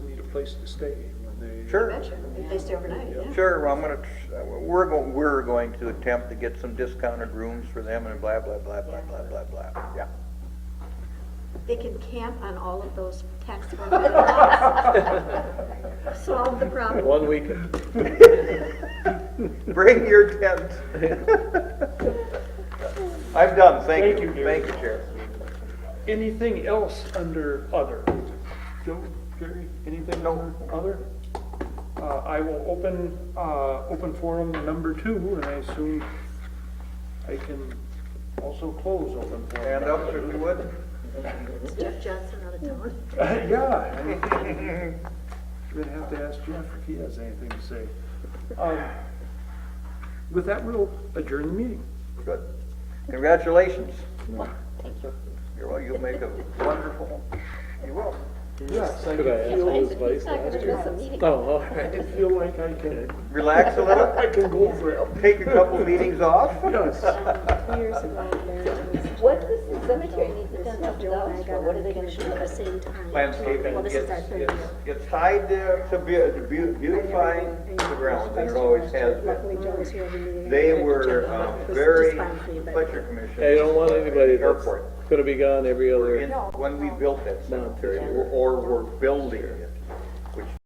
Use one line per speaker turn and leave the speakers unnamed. place to stay when they.
Sure.
Mention, if they stay overnight, yeah.
Sure, well, I'm gonna, tr- uh, we're going, we're going to attempt to get some discounted rooms for them and blah, blah, blah, blah, blah, blah, blah, yeah.
They can camp on all of those taxable landlots. Solve the problem.
One weekend.
Bring your tent. I'm done, thank you.
Thank you, Gary.
Thank you, Chair.
Anything else under other? Joe, Jerry, anything under other? Uh, I will open, uh, open forum number two, and I assume I can also close open forum.
Hand
number
up
two.
if you would.
It's Jeff Johnson out of town.
Yeah. I mean, You're gonna have to ask Jeff if he has anything to say. Um, With that, we'll adjourn the meeting.
Good. Congratulations.
Thank you.
You're, well, you'll make a wonderful, you will.
Yes, I
Could I ask
feel,
who was vice
He's not gonna miss
last
a
year?
meeting.
Oh, all right.
I feel like I can,
Relax a little,
I can go over it.
take a couple meetings off.
Yes.
What does the cemetery need to dump
Joe and I got
dollars for? What are
on
they gonna do?
commission at the same time.
Landscaping
Well, this
gets,
is our third
gets,
year.
gets tied to, to beau- to beau- beautifying the grounds, and it always has
Luckily,
been.
Joe was here every meeting.
They
Good
were,
job. It
um,
was
very
just fine for you, but-
Fletcher Commission.
Yeah, you don't want anybody that's
Airport.
gonna be gone every
In-
other.
When we built that cemetery, or or were building it, which